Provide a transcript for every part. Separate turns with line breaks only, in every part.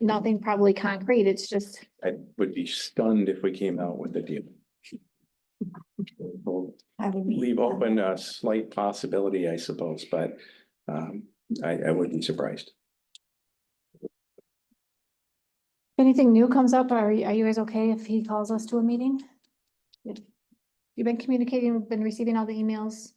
nothing probably concrete. It's just,
I would be stunned if we came out with a deal. We'll
I would be.
leave open a slight possibility, I suppose, but um, I, I wouldn't be surprised.
If anything new comes up, are, you- are you guys okay if he calls us to a meeting? You've been communicating, we've been receiving all the emails.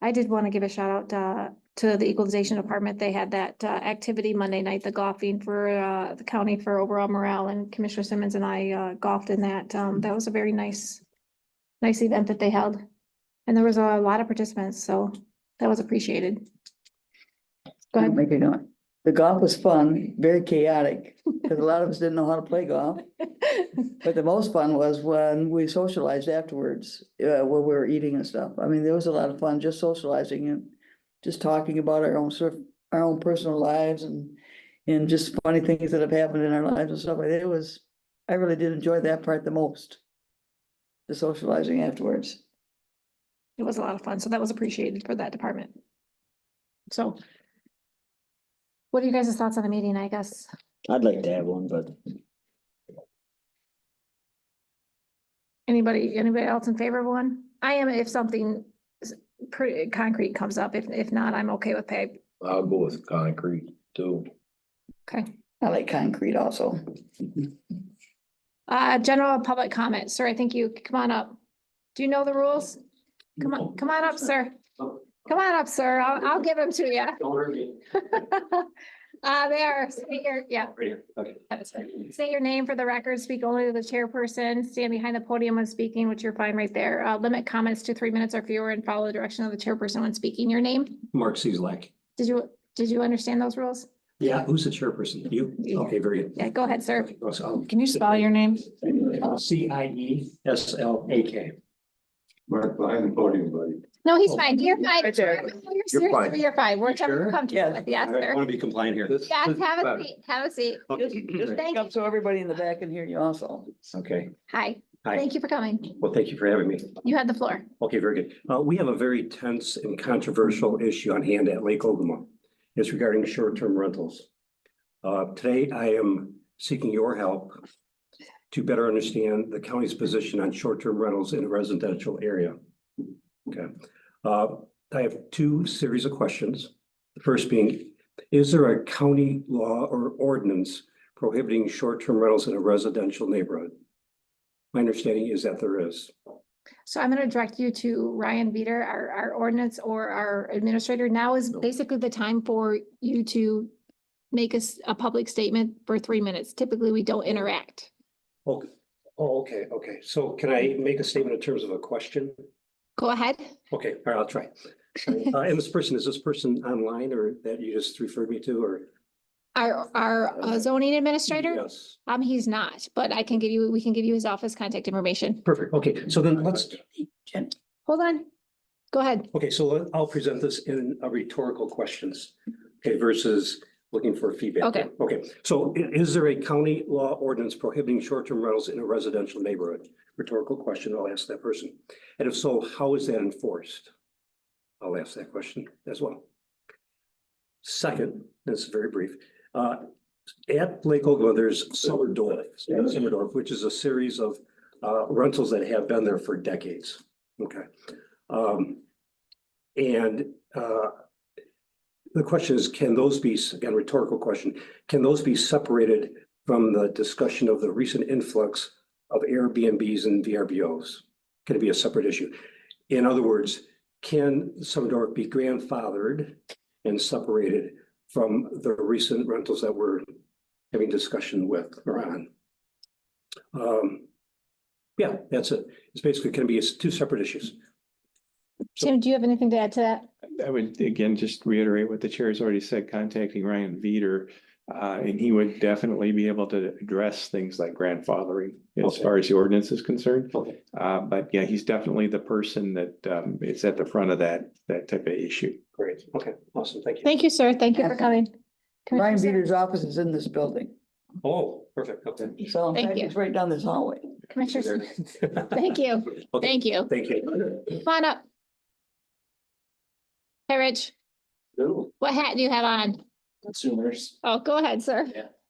I did want to give a shout out uh, to the equalization department. They had that uh, activity Monday night, the golfing for uh, the county for overall morale and Commissioner Simmons and I uh, golfed in that. Um, That was a very nice, nice event that they held. And there was a lot of participants, so that was appreciated. Go ahead.
Make it not. The golf was fun, very chaotic, because a lot of us didn't know how to play golf. But the most fun was when we socialized afterwards, uh, where we were eating and stuff. I mean, there was a lot of fun just socializing and just talking about our own sort, our own personal lives and, and just funny things that have happened in our lives and stuff. like that. It was, I really did enjoy that part the most. The socializing afterwards.
It was a lot of fun, so that was appreciated for that department. So. What are you guys' thoughts on the meeting, I guess?
I'd like to have one, but
Anybody, anybody else in favor of one? I am if something s- pretty concrete comes up. If, if not, I'm okay with pay.
I'll go with concrete too.
Okay.
I like concrete also.
Uh, general public comment. Sir, I think you, come on up. Do you know the rules? Come on, come on up, sir. Come on up, sir. I'll, I'll give them to you.
Don't hurt me.
Uh, they are, say your, yeah,
Right here, okay.
that is right. Say your name for the record, speak only to the chairperson, stand behind the podium when speaking, which you're fine right there. Uh, limit comments to three minutes or fewer and follow the direction of the chairperson when speaking your name.
Mark Cieslak.
Did you, did you understand those rules?
Yeah, who's the chairperson? You? Okay, very good.
Yeah, go ahead, sir.
Can you spell your name? C I E S L A K.
Mark, behind the podium, buddy.
No, he's fine. You're fine.
Right there.
You're serious.
fine.
You're fine. We're
Sure?
comfortable
Yeah.
with, yes,
I
sir.
want to be compliant here.
Yes, have a seat, have a seat.
Just just
Thank
pick up so everybody in the back can hear you also.
Okay,
Hi,
hi.
thank you for coming.
Well, thank you for having me.
You had the floor.
Okay, very good. Uh, we have a very tense and controversial issue on hand at Lake Ogama. It's regarding short-term rentals. Uh, today I am seeking your help to better understand the county's position on short-term rentals in a residential area. Okay, uh, I have two series of questions. The first being, is there a county law or ordinance prohibiting short-term rentals in a residential neighborhood? My understanding is that there is.
So I'm gonna direct you to Ryan Veeder, our, our ordinance or our administrator. Now is basically the time for you to make us a public statement for three minutes. Typically, we don't interact.
Okay, oh, okay, okay. So can I make a statement in terms of a question?
Go ahead.
Okay, all right, I'll try. Uh, and this person, is this person online or that you just referred me to or?
Our, our uh, zoning administrator,
Yes,
um, he's not, but I can give you, we can give you his office contact information.
perfect. Okay, so then let's,
Hold on. Go ahead.
okay, so let- I'll present this in a rhetorical questions. Okay, versus looking for feedback.
Okay.
Okay, so i- is there a county law ordinance prohibiting short-term rentals in a residential neighborhood? Rhetorical question, I'll ask that person. And if so, how is that enforced? I'll ask that question as well. Second, this is very brief, uh, at Lake Ogama, there's Summerdorf, Summerdorf, which is a series of uh, rentals that have been there for decades. Okay. Um, and, uh, the question is, can those be, again, rhetorical question, can those be separated from the discussion of the recent influx of Airbnbs and VRBOs? Can it be a separate issue? In other words, can Summerdorf be grandfathered and separated from the recent rentals that we're having discussion with or on? Um, yeah, that's it. It's basically going to be two separate issues.
Tim, do you have anything to add to that?
I would again just reiterate what the chair has already said, contacting Ryan Veeder. Uh, and he would definitely be able to address things like grandfathering as
Okay.
far as the ordinance is concerned.
Okay.
Uh, but yeah, he's definitely the person that um is at the front of that, that type of issue.
Great. Okay, awesome. Thank you.
Thank you, sir. Thank you for coming. Commissioner
Ryan
Sim-
Beater's office is in this building.
Oh, perfect. Okay.
So in
Thank
fact,
you.
it's right down this hallway.
Commissioner, Sim- thank you.
Okay,
Thank you.
thank you.
Come on up. Hey, Rich, what hat do you have on?
consumers.
Oh, go ahead, sir.
Yeah.